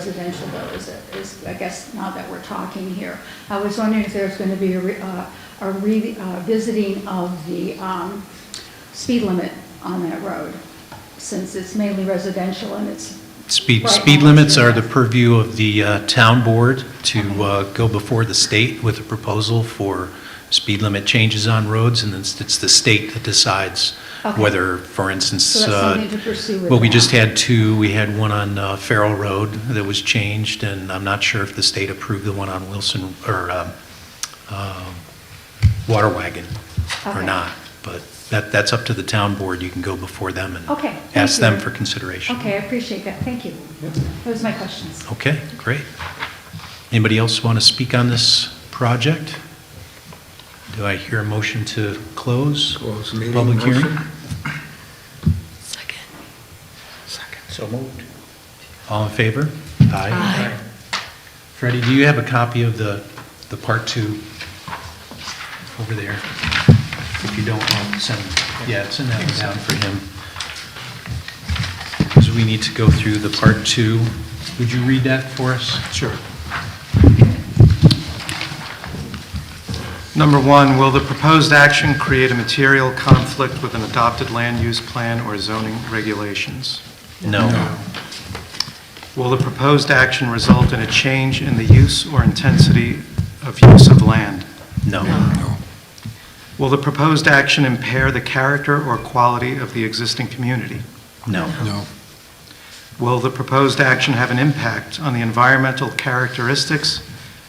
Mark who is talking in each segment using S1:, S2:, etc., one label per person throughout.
S1: residential though is, is, I guess, now that we're talking here. I was wondering if there's going to be a re- uh, a revisiting of the um, speed limit on that road, since it's mainly residential and it's,
S2: Speed,
S1: Right.
S2: speed limits are the purview of the uh, town board to uh, go before the state with a proposal for speed limit changes on roads, and it's, it's the state that decides
S1: Okay.
S2: whether, for instance,
S1: So that's
S2: uh,
S1: something to pursue with
S2: well, we
S1: them.
S2: just had two, we had one on uh, Farrell Road that was changed, and I'm not sure if the state approved the one on Wilson, or um, um, Water Wagon or
S1: Okay.
S2: not, but that, that's up to the town board, you can go before them and
S1: Okay, thank
S2: ask them
S1: you.
S2: for consideration.
S1: okay, I appreciate that, thank you. Those are my questions.
S2: Okay, great. Anybody else want to speak on this project? Do I hear a motion to close?
S3: Close meeting,
S2: Public hearing?
S3: motion.
S4: So moved.
S2: All in favor? Aye. Freddie, do you have a copy of the, the part two over there? If you don't, I'll send, yeah, send that one down for him. Because we need to go through the part two. Would you read that for us? Sure.
S5: Number one, will the proposed action create a material conflict with an adopted land use plan or zoning regulations?
S2: No.
S5: Will the proposed action result in a change in the use or intensity of use of land?
S2: No.
S5: Will the proposed action impair the character or quality of the existing community?
S2: No.
S3: No,
S5: Will the proposed action have an impact on the environmental characteristics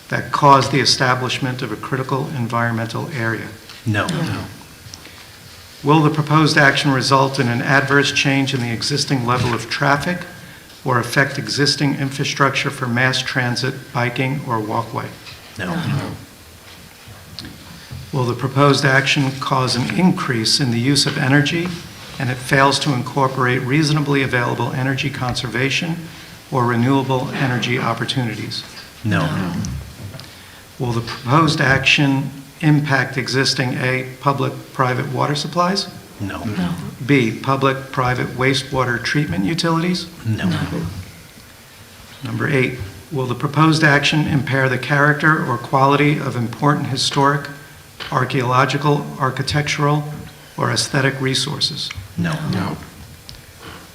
S5: that cause the establishment of a critical environmental area?
S2: No.
S5: Will the proposed action result in an adverse change in the existing level of traffic or affect existing infrastructure for mass transit, biking, or walkway?
S2: No.
S5: Will the proposed action cause an increase in the use of energy and it fails to incorporate reasonably available energy conservation or renewable energy opportunities?
S2: No.
S5: Will the proposed action impact existing A, public-private water supplies?
S2: No.
S5: B, public-private wastewater treatment utilities?
S2: No.
S5: Number eight, will the proposed action impair the character or quality of important historic, archaeological, architectural, or aesthetic resources?
S2: No.
S3: no,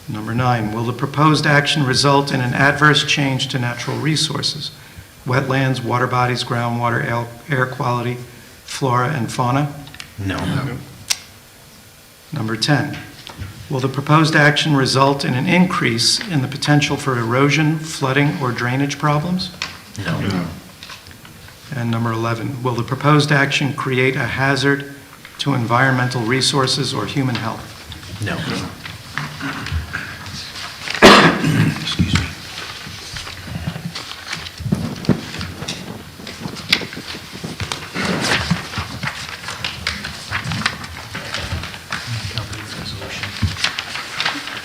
S5: Number nine, will the proposed action result in an adverse change to natural resources, wetlands, water bodies, groundwater, air- air quality, flora and fauna?
S2: No.
S5: Number 10, will the proposed action result in an increase in the potential for erosion, flooding, or drainage problems?
S2: No.
S5: And number 11, will the proposed action create a hazard to environmental resources or human health?
S2: No.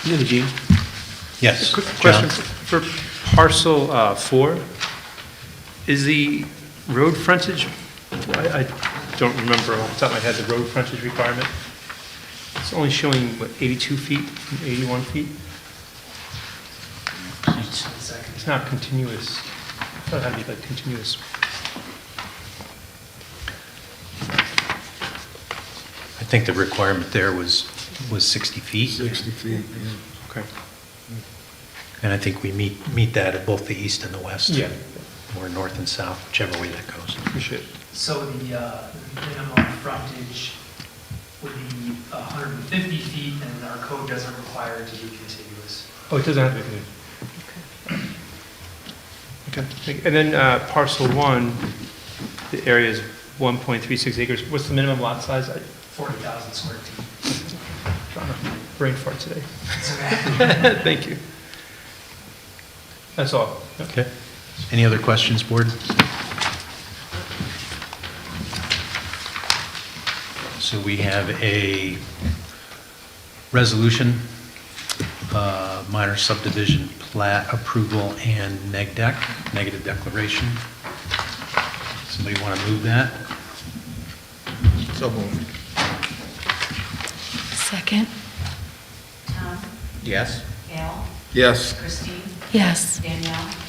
S4: Eugene?
S2: Yes.
S6: Quick
S2: John?
S6: question for for parcel uh, four. Is the road frontage, I I don't remember off the top of my head, the road frontage requirement? It's only showing, what, 82 feet and 81 feet? It's not continuous. I thought it had to be like continuous.
S2: I think the requirement there was, was 60 feet,
S3: 60 feet, yeah.
S6: Okay.
S2: and I think we meet, meet that at both the east and the west.
S6: Yeah.
S2: Or north and south, whichever way that goes.
S6: Appreciate it.
S7: So the uh, minimum frontage would be 150 feet, and our code doesn't require it to be contiguous.
S6: Oh, it doesn't have to be continuous. Okay. And then uh, parcel one, the area is 1.36 acres. What's the minimum lot size? I-
S7: 40,000 square feet.
S6: brain fart today.
S7: It's okay.
S6: Thank you. That's all.
S2: Okay. Any other questions, board? So we have a resolution, uh, minor subdivision plat approval and neg deck, negative declaration. Somebody want to move that?
S3: So moved.
S8: Second?
S9: Tom,
S4: Yes?
S9: Gail,
S3: Yes.
S9: Christine,
S8: Yes.
S9: Danielle.